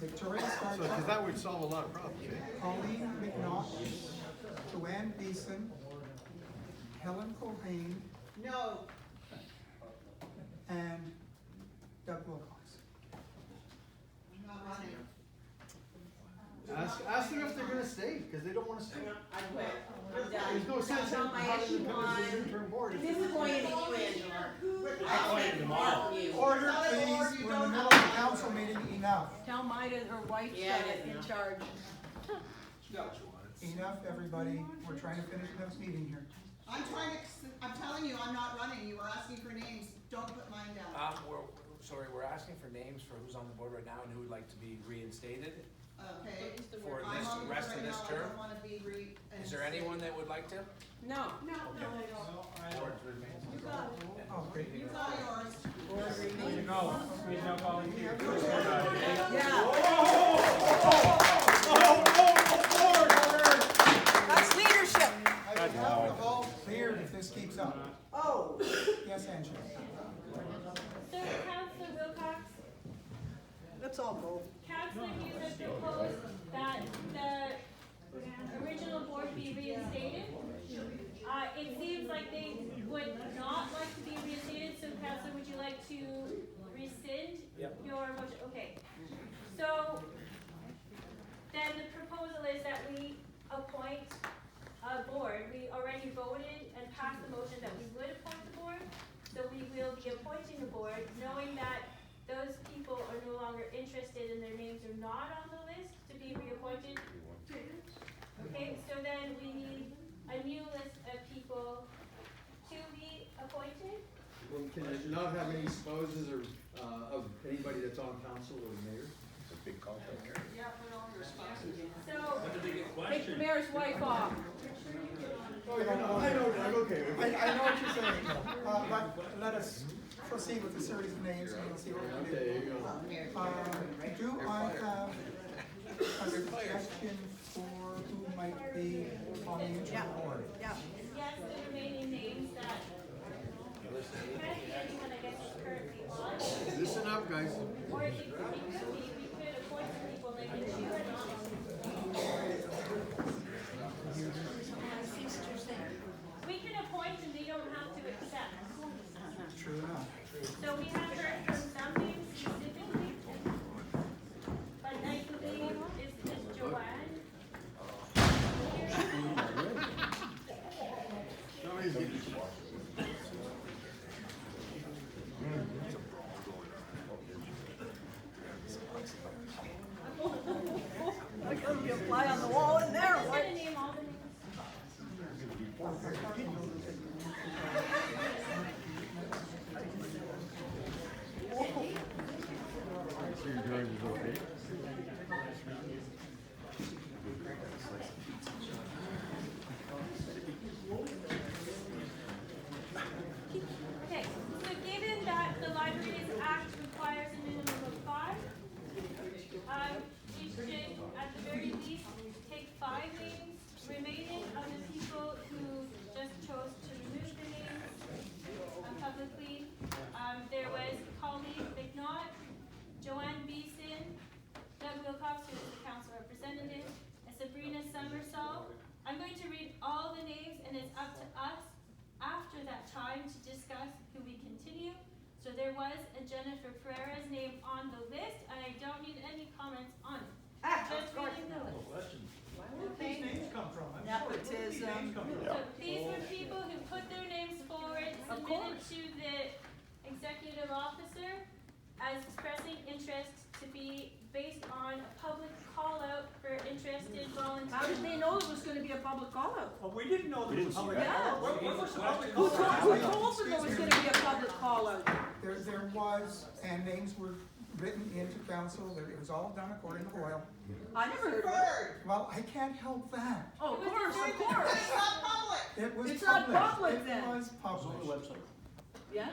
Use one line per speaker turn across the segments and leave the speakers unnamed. Victoria
So, because
Starchuck,
that would solve a lot of problems, eh?
Colleen McNaught, Joanne Beeson, Helen Culhane,
No,
and Doug Wilcox.
I'm not on it.
Ask, ask them if they're gonna stay, because they don't wanna stay.
I quit. I'm done.
There's no sense
That's
in
not my
having
issue
them come as a
one.
interim board. if-
Disappointed in you, Angela.
I appointed tomorrow.
Order,
Not at all,
please,
you
we're in the
don't
middle
know.
of the council meeting, enough,
Tell Maida her wife's
Yeah,
got
it
it
is
in
now.
charge.
enough, everybody, we're trying to finish this meeting here.
I'm trying to, I'm telling you, I'm not running. You were asking for names. Don't put mine down.
Um, we're, sorry, we're asking for names for who's on the board right now and who would like to be reinstated
Okay?
for
I'm
this,
on the board
rest
right
of this
now. I
term.
don't wanna be re.
Is there anyone that would like to?
No,
Board remains.
Oh, great.
You got yours.
No, we have volunteers. We're
yeah. That's leadership.
I would have the hall cleared if this keeps up.
Oh.
Yes, Angela.
So Councillor Wilcox,
Let's all go.
Councillor Hughes has proposed that the original board be reinstated. Uh, it seems like they would not like to be reinstated, so Councillor, would you like to rescind your motion? Okay. So then the proposal is that we appoint a board. We already voted and passed the motion that we would appoint the board. So we will be appointing the board, knowing that those people are no longer interested and their names are not on the list to be reappointed. Okay, so then we need a new list of people to be appointed.
Well, can it not have any spouses or, uh, of anybody that's on council or mayor?
Yeah, put all your spouses.
So,
Take the mayor's wife off.
Oh, yeah, no, I know, I'm okay with
I,
it.
I know what you're saying, uh, but let us proceed with the series of names and we'll see what we can do.
Okay, you go.
Um, do I have a suggestion for who might be on the interim board?
Yeah.
yes, the remaining names that, kind of anyone I guess is currently on.
Listen up, guys.
Or it could, it could be, we could appoint some people that can choose not. We can appoint and they don't have to accept.
True enough.
So we have heard from some names specifically. But I believe it's just Joanne.
There's gonna be a fly on the wall in there.
I'm gonna name all the names. Okay, so given that the Libraries Act requires a minimum of five, um, we should at the very least take five names remaining of the people who just chose to remove the names um, publicly. Um, there was Colleen McNaught, Joanne Beeson, Doug Wilcox, who is the council representative, and Sabrina Summersall. I'm going to read all the names and it's up to us after that time to discuss who we continue. So there was a Jennifer Pereira's name on the list, and I don't need any comments on it. Just reading the list. Okay?
Nepotism.
So these were people who put their names forward, submitted to the executive officer as expressing interest to be based on a public call out for interested
How did
volunteers.
they know it was gonna be a public call out?
Well, we didn't know this was public.
Yeah.
What, what was the public?
Who told, who told them there was gonna be a public call out?
There, there was, and names were written into council, that it was all done according to oil.
I never heard of it.
Bird.
Well, I can't help that.
Oh, of course, of course.
It's not public.
It was
It's not
published.
public then.
It was published.
Yeah?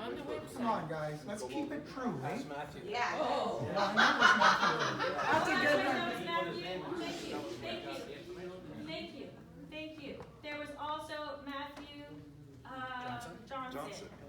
Come on, guys, let's keep it true, eh?
That's Matthew.
Oh,
Yeah, I know it's not public.
that's a good one.
That was Matthew. Thank you, thank you, thank you, thank you. There was also Matthew, uh, Johnson.